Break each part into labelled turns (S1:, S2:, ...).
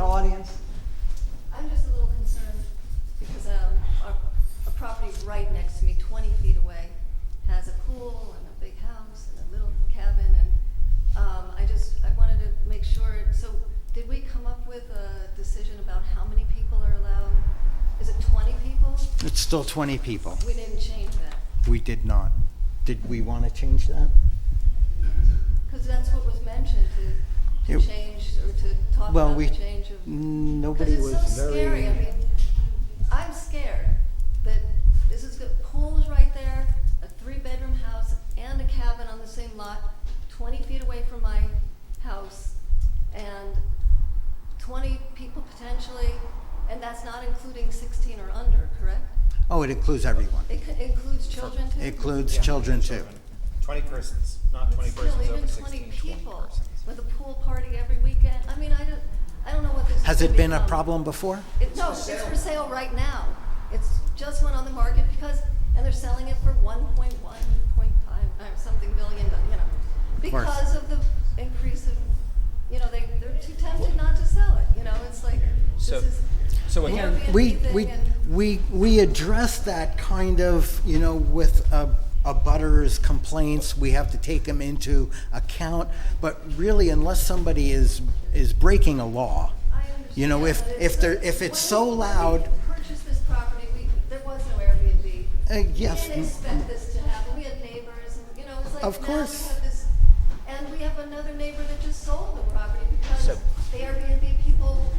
S1: um, um,
S2: It's still 20 people.
S1: We didn't change that,
S2: We did not. Did we want to change that?
S1: because that's what was mentioned, to,
S2: It-
S1: to change, or to talk
S2: Well,
S1: about
S2: we,
S1: the change of.
S2: n-
S1: Because
S2: nobody
S1: it's
S2: was
S1: so
S2: very.
S1: scary. I mean, I'm scared that this is good. Pool is right there, a three-bedroom house and a cabin on the same lot, 20 feet away from my house, and 20 people potentially, and that's not including 16 or under, correct?
S2: Oh, it includes everyone.
S1: It c- includes children too.
S2: Includes
S3: Yeah,
S2: children too.
S3: Twenty persons, not
S1: But
S3: twenty
S1: still,
S3: persons
S1: even
S3: over
S1: 20
S3: sixteen, twenty
S1: people
S3: persons.
S1: with a pool party every weekend. I mean, I don't, I don't know what this is
S2: Has
S1: gonna
S2: it been a
S1: become.
S2: problem before?
S1: It, no, it's for sale right now. It's just went on the market because, and they're selling it for one point one, point five, or something billion, but, you know,
S2: course.
S1: because of the increase of, you know, they, they're too tempted not to sell it, you know, it's like, this
S3: So-
S1: is
S3: so
S1: an
S3: again-
S1: Airbnb
S2: We,
S1: thing
S2: we,
S1: and-
S2: we, we address that kind of, you know, with a, a butter's complaints, we have to take them into account. But really, unless somebody is, is breaking a law,
S1: I
S2: you know, if,
S1: understand, but
S2: if
S1: it's-
S2: there, if it's so
S1: when we-
S2: loud,
S1: When we purchased this property, we, there was no Airbnb.
S2: uh, yes.
S1: We didn't expect this to happen. We had neighbors, and, you know, it's like
S2: Of
S1: now
S2: course.
S1: we have this, and we have another neighbor that just sold the property because
S4: So-
S1: the Airbnb people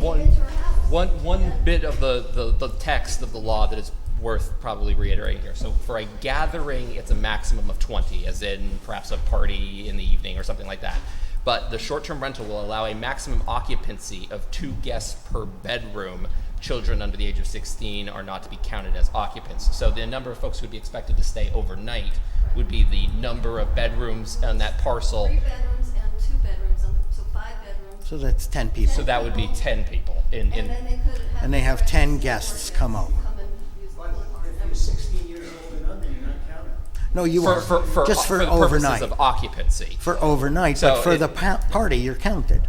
S4: One-
S1: came into her house.
S4: One, one
S1: And-
S4: bit of the, the, the text of the law that is worth probably reiterating here. So for a gathering, it's a maximum of 20, as in perhaps a party in the evening or something like that. But the short-term rental will allow a maximum occupancy of two guests per bedroom. Children under the age of 16 are not to be counted as occupants. So the number of folks who would be expected to stay overnight would be the number of bedrooms on that parcel.
S1: Three bedrooms and two bedrooms, on the- so five bedrooms.
S2: So that's 10 people.
S4: So that would be 10 people in,
S1: And
S4: in
S1: then they could have.
S2: And they have
S1: friends
S2: 10
S1: or
S2: guests come
S1: guests
S2: over.
S1: Come and use the pool party.
S5: If you're 16 years old and under, you're not counted.
S2: No, you
S4: for,
S2: are
S4: for, for,
S2: just for,
S4: the purposes
S2: overnight.
S4: of occupancy.
S2: for overnight, but
S4: So
S2: for
S4: it-
S2: the pa- party, you're counted.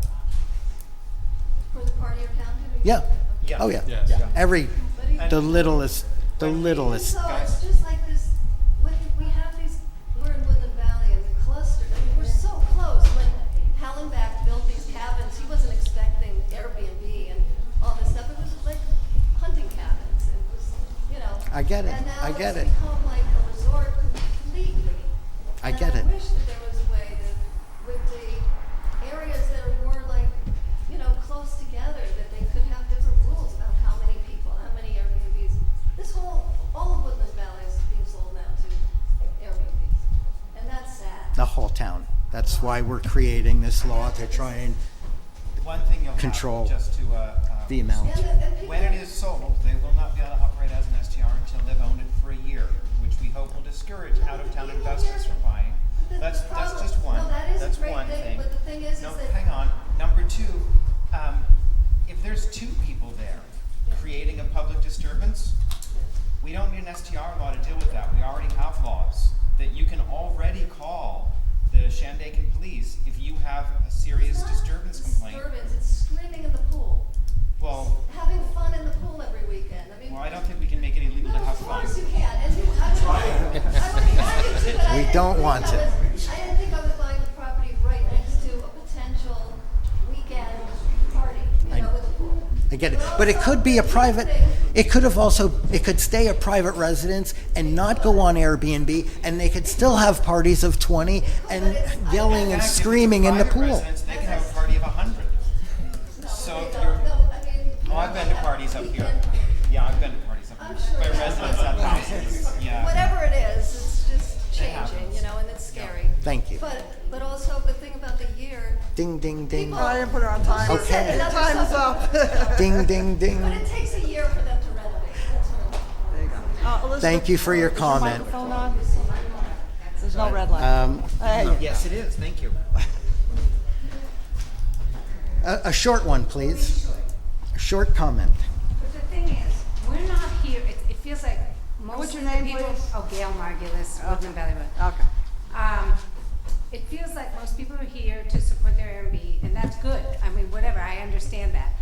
S1: For the party or county.
S2: Yeah.
S3: Yeah.
S2: Oh yeah.
S3: Yes. Yeah.
S2: Every
S1: But even-
S2: the littlest, the
S1: Even
S2: littlest.
S1: So it's just like this, when we have these, we're in Woodland Valley and the cluster, I mean, we're so close. When Hallenbach built these cabins, he wasn't expecting Airbnb and all this stuff. It was like hunting cabins. It was, you know.
S2: I get it.
S1: And now
S2: I get
S1: it's
S2: it.
S1: become like a resort completely.
S2: I
S1: And
S2: get it.
S1: I wish that there was a way that with the areas that are more like, you know, close together, that they could have different rules about how many people, how many Airbnbs. This whole, all of Woodland Valley is being sold now to Airbnbs. And that's sad.
S2: The whole town. That's why we're creating this law to try and
S3: One thing you'll
S2: Control
S3: have, just to, uh, um,
S2: the amount.
S1: And the- and people-
S3: When it is sold, they will not be able to operate as an STR until they've owned it for a year, which we hope will discourage out-of-town investors from buying.
S1: But the-
S3: That's,
S1: the
S3: that's
S1: problem-
S3: just one,
S1: no, that is a
S3: that's
S1: great
S3: one
S1: thing,
S3: thing.
S1: but the thing is,
S3: No,
S1: is that-
S3: hang on, number two, um, if there's two people there creating a public disturbance, we don't need an STR law to deal with that, we already have laws that you can already call the Shandaken police if you have a serious
S1: It's not
S3: disturbance complaint.
S1: Disturbance, it's screaming in the pool,
S3: Well,
S1: having fun in the pool every weekend. I mean.
S3: well, I don't think we can make it illegal to
S1: No,
S3: have
S1: of
S3: fun.
S1: course you can, and you, I would, I would be happy to, but I
S2: We
S1: didn't
S2: don't
S1: think I
S2: want it.
S1: was- I didn't think I was buying a property right next to a potential weekend party, you know, with a pool.
S2: I get it. But it could be a private it could have also it could stay a private residence and not go on Airbnb and they could still have parties of 20 and yelling and
S3: fact, if it's a
S2: screaming in the
S3: private
S2: pool.
S3: residence, they can have a party of 100.
S1: No,
S3: So
S1: they
S3: if
S1: don't.
S3: you're-
S1: No, I mean,
S3: Oh, I've been to parties up here. Yeah, I've been to parties up
S1: I'm
S3: here.
S1: sure
S3: By
S1: that-
S3: residents at houses. Yeah.
S1: Whatever it is, it's just changing,
S3: happens.
S1: you know, and it's scary.
S2: Thank you.
S1: But, but also the thing about the year,
S2: Ding ding ding.
S1: People-
S6: I didn't put her on time.
S1: She said
S2: Okay.
S1: another
S6: Time's up.
S1: subject.
S2: Ding ding
S1: But
S2: ding.
S1: it takes a year for them to renovate, that's what
S6: There you go. Uh, Elizabeth,
S2: Thank you for your
S6: is
S2: comment.
S6: microphone on? There's no red light. Uh,
S2: Um,
S6: There you go.
S3: Yes, it is. Thank you.
S2: a, a short one, please. A short comment.
S7: But the thing is, we're not here, it, it feels like most
S6: What's
S7: of
S6: your
S7: the
S6: name,
S7: people.
S6: please?
S7: Oh, Gail Margulis, Woodland Valley Road.
S6: Okay.
S7: Um, it feels like most people are here to support their Airbnb, and that's good, I mean, whatever, I understand that.